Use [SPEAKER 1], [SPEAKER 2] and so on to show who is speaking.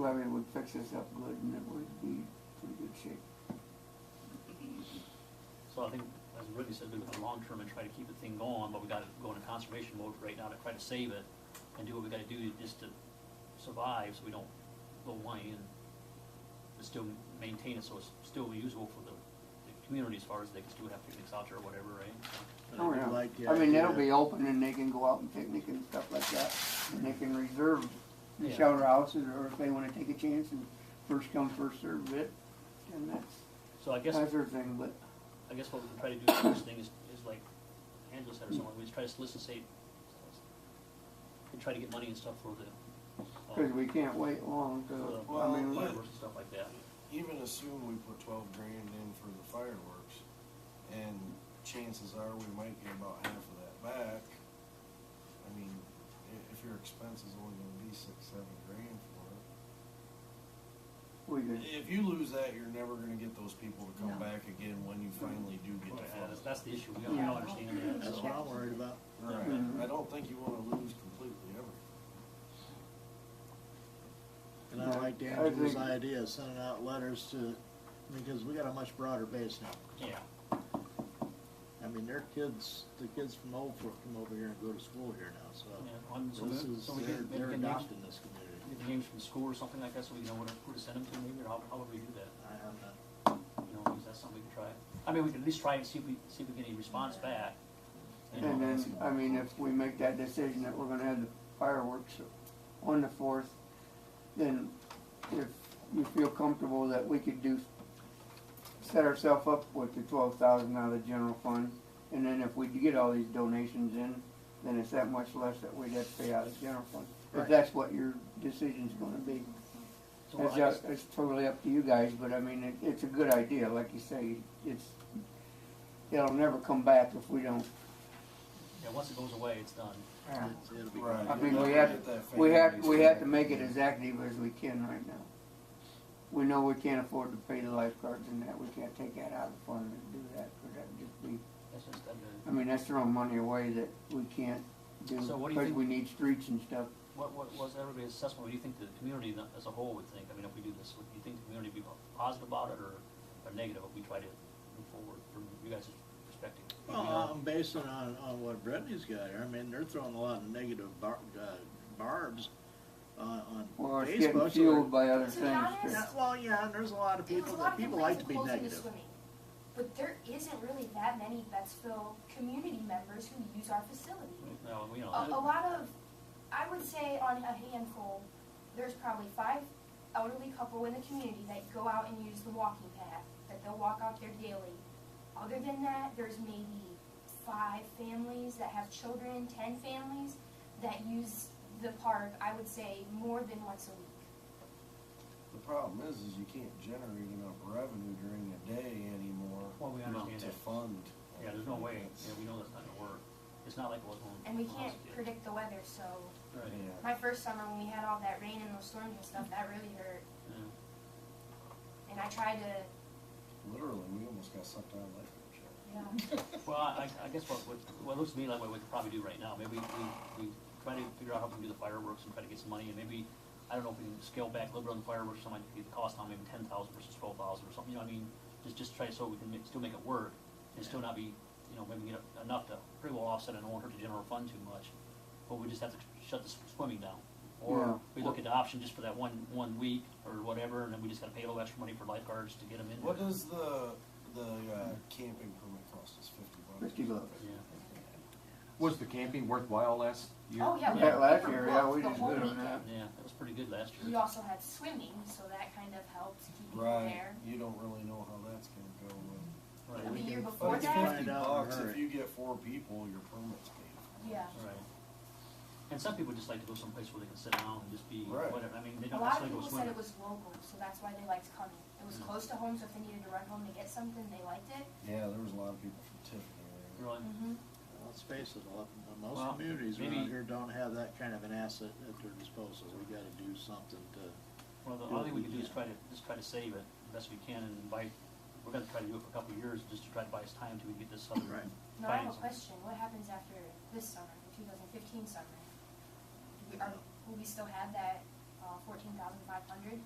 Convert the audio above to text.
[SPEAKER 1] fix this up good and it would be pretty good shape.
[SPEAKER 2] So I think, as Whitney said, we look at the long term and try to keep the thing going, but we gotta go into conservation mode right now to try to save it and do what we gotta do just to survive, so we don't go away and but still maintain it, so it's still usable for the, the community as far as they can still have picnics out there or whatever, right?
[SPEAKER 1] I
[SPEAKER 3] I
[SPEAKER 1] don't
[SPEAKER 3] do
[SPEAKER 1] know.
[SPEAKER 3] like the
[SPEAKER 1] Oh, I mean, that'll
[SPEAKER 3] idea.
[SPEAKER 1] be open and they can go out and picnic and stuff like that, and they can reserve the
[SPEAKER 2] Yeah.
[SPEAKER 1] shelter houses, or if they wanna take a chance and first come, first served it, then that's,
[SPEAKER 2] So I guess,
[SPEAKER 1] that's their thing, but,
[SPEAKER 2] I guess what we can try to do with this thing is, is like Angela said or someone, we just try to solicit, and try to get money and stuff for the. uh,
[SPEAKER 1] cause we can't wait long
[SPEAKER 2] For the
[SPEAKER 1] to, I mean,
[SPEAKER 2] fireworks and stuff like that.
[SPEAKER 4] Even assume we put twelve grand in for the fireworks, and chances are we might get about half of that back. I mean, i- if your expense is only gonna be six, seven grand for it.
[SPEAKER 1] we could,
[SPEAKER 4] If you lose that, you're never gonna get those people to
[SPEAKER 5] No.
[SPEAKER 4] come back again when you finally do get
[SPEAKER 2] Well,
[SPEAKER 4] the
[SPEAKER 2] yeah, that's-
[SPEAKER 4] funds.
[SPEAKER 2] That's the issue, we all we all understand that,
[SPEAKER 3] That's what I'm
[SPEAKER 2] so.
[SPEAKER 3] worried about.
[SPEAKER 4] Right, I don't think you wanna lose completely ever.
[SPEAKER 3] And I liked
[SPEAKER 1] I
[SPEAKER 3] Angela's
[SPEAKER 1] think-
[SPEAKER 3] idea, of sending out letters to, because we got a much broader base now.
[SPEAKER 2] Yeah,
[SPEAKER 3] I mean, their kids, the kids from Old Fork come over here and go to school here now, so.
[SPEAKER 2] yeah, on, so
[SPEAKER 3] This is,
[SPEAKER 2] so we
[SPEAKER 3] they're,
[SPEAKER 2] get, maybe
[SPEAKER 3] they're
[SPEAKER 2] get names,
[SPEAKER 3] adopting this community.
[SPEAKER 2] get names from school or something like that, so we know where to, who to send them to maybe, or how, how would we do that?
[SPEAKER 3] I am not,
[SPEAKER 2] You know, is that something we can try? I mean, we can at least try and see if we, see if we get any response back. you know.
[SPEAKER 1] and then, I mean, if we make that decision that we're gonna have the fireworks on the fourth, then if you feel comfortable that we could do, set ourselves up with the twelve thousand out of the general fund, and then if we get all these donations in, then it's that much less that we'd have to pay out of the general fund. If
[SPEAKER 3] Right.
[SPEAKER 1] that's what your decision's gonna be.
[SPEAKER 2] So I
[SPEAKER 1] It's,
[SPEAKER 2] guess-
[SPEAKER 1] up- it's totally up to you guys, but I mean, it, it's a good idea, like you say, it's, it'll never come back if we don't.
[SPEAKER 2] Yeah, once it goes away, it's done.
[SPEAKER 3] It's- it'll be
[SPEAKER 4] Right.
[SPEAKER 3] fine.
[SPEAKER 1] I mean,
[SPEAKER 4] You'll
[SPEAKER 1] we
[SPEAKER 4] never
[SPEAKER 1] have-
[SPEAKER 4] get that
[SPEAKER 1] We have,
[SPEAKER 4] family
[SPEAKER 1] we have to make it
[SPEAKER 4] back.
[SPEAKER 1] as active as we can right now. We know we can't afford to pay the lifeguards and that, we can't take that out of the fund and do that, or that'd just be,
[SPEAKER 2] That's just,
[SPEAKER 1] I
[SPEAKER 2] uh,
[SPEAKER 1] mean, that's throwing money away that we can't do,
[SPEAKER 2] So what do you
[SPEAKER 1] because
[SPEAKER 2] think-
[SPEAKER 1] we need streets and stuff.
[SPEAKER 2] what, what was everybody's assessment, what do you think the community as a whole would think? I mean, if we do this, would you think the community would be positive about it, or, or negative if we try to move forward from you guys' perspective?
[SPEAKER 3] Well, um, I'm basing on, on what Brittany's got here, I mean, they're throwing a lot of negative bar, uh, barbs on,
[SPEAKER 1] Well,
[SPEAKER 3] on
[SPEAKER 1] it's getting
[SPEAKER 3] Facebook. so
[SPEAKER 1] fueled by other
[SPEAKER 5] To be
[SPEAKER 1] things.
[SPEAKER 5] honest,
[SPEAKER 3] Yeah,
[SPEAKER 1] too.
[SPEAKER 3] well, yeah, and there's a lot of
[SPEAKER 5] There's
[SPEAKER 3] people,
[SPEAKER 5] a lot
[SPEAKER 3] that
[SPEAKER 5] of
[SPEAKER 3] people like
[SPEAKER 5] complaints
[SPEAKER 3] to
[SPEAKER 5] of
[SPEAKER 3] be
[SPEAKER 5] closing the
[SPEAKER 3] negative.
[SPEAKER 5] swimming, But there isn't really that many Bettsville community members who use our facility.
[SPEAKER 2] No, we
[SPEAKER 5] A,
[SPEAKER 2] don't.
[SPEAKER 5] a lot of, I would say on a handful, there's probably five elderly couple in the community that go out and use the walking path, that they'll walk out there daily. Other than that, there's maybe five families that have children, ten families that use the park, I would say, more than once a week.
[SPEAKER 4] The problem is, is you can't generate enough revenue during the day anymore.
[SPEAKER 2] Well, we understand
[SPEAKER 4] To
[SPEAKER 2] that.
[SPEAKER 4] fund.
[SPEAKER 2] Yeah, there's no way, yeah, we know that's not gonna work. It's not like it was when.
[SPEAKER 5] And we
[SPEAKER 2] when I was
[SPEAKER 5] can't
[SPEAKER 2] a kid.
[SPEAKER 5] predict the weather, so
[SPEAKER 2] Right,
[SPEAKER 4] Yeah.
[SPEAKER 5] my first summer when we had all that rain and those storms and stuff, that really hurt.
[SPEAKER 2] yeah.
[SPEAKER 5] And I tried to,
[SPEAKER 4] Literally, we almost got sucked out of life coach.
[SPEAKER 5] you know,
[SPEAKER 2] Well, I, I guess what, what, what looks to me like what we could probably do right now, maybe we, we try to figure out how we can do the fireworks and try to get some money, and maybe, I don't know if we can scale back a little bit on the fireworks, something like the cost down maybe ten thousand versus twelve thousand or something, you know what I mean? Just, just try so we can make, still make it work, and still not be, you know, maybe get enough to pretty well offset and won't hurt the general fund too much, but we just have to shut the s- swimming down.
[SPEAKER 1] Yeah.
[SPEAKER 2] Or we look at the option just for that one, one week or whatever, and then we just gotta pay a little extra money for lifeguards to get them in.
[SPEAKER 4] What does the, the uh, camping permit cost us, fifty bucks?
[SPEAKER 1] 50 bucks.
[SPEAKER 2] Yeah.
[SPEAKER 6] Was the camping worthwhile last year?
[SPEAKER 5] oh yeah, we
[SPEAKER 1] That last
[SPEAKER 5] we
[SPEAKER 1] year,
[SPEAKER 5] were
[SPEAKER 1] yeah,
[SPEAKER 5] booked
[SPEAKER 1] we
[SPEAKER 5] the
[SPEAKER 1] just
[SPEAKER 5] whole
[SPEAKER 1] did on
[SPEAKER 5] weekend.
[SPEAKER 1] that.
[SPEAKER 2] Yeah, that was pretty good last year.
[SPEAKER 5] We also had swimming, so that kind of helped keep you
[SPEAKER 4] Right,
[SPEAKER 5] there.
[SPEAKER 4] you don't really know how that's gonna go with.
[SPEAKER 2] Right.
[SPEAKER 5] The
[SPEAKER 3] We
[SPEAKER 5] year
[SPEAKER 3] can
[SPEAKER 5] before
[SPEAKER 4] But it's
[SPEAKER 5] that,
[SPEAKER 3] find
[SPEAKER 4] fifty
[SPEAKER 3] out in a
[SPEAKER 4] bucks, if
[SPEAKER 3] hurry.
[SPEAKER 4] you get four people, your permit's paid.
[SPEAKER 5] yeah.
[SPEAKER 2] Right. And some people just like to go someplace where they can sit down and just be,
[SPEAKER 4] Right.
[SPEAKER 2] whatever, I mean, they
[SPEAKER 5] A
[SPEAKER 2] don't
[SPEAKER 5] lot of
[SPEAKER 2] necessarily go
[SPEAKER 5] people said
[SPEAKER 2] swimming.
[SPEAKER 5] it was local, so that's why they liked coming. It was
[SPEAKER 2] Mm.
[SPEAKER 5] close to home, so if they needed to run home to get something, they liked it.
[SPEAKER 4] Yeah, there was a lot of people from Tiffany. right?
[SPEAKER 2] Really?
[SPEAKER 5] Mm-hmm.
[SPEAKER 3] Let's face it, a lot,
[SPEAKER 2] Well,
[SPEAKER 3] most communities
[SPEAKER 2] maybe-
[SPEAKER 3] around here don't have that kind of an asset at their disposal, we gotta do something to,
[SPEAKER 2] Well, the only
[SPEAKER 3] Do what
[SPEAKER 2] thing
[SPEAKER 3] we
[SPEAKER 2] we can do is
[SPEAKER 3] can.
[SPEAKER 2] try to, just try to save it the best we can and buy, we're gonna try to do it for a couple of years, just to try to buy us time till we get this other.
[SPEAKER 3] Right.
[SPEAKER 5] Now I have a
[SPEAKER 2] financing.
[SPEAKER 5] question. What happens after this summer, the 2015 summer? Do we, are, will we still have that uh, 14,500?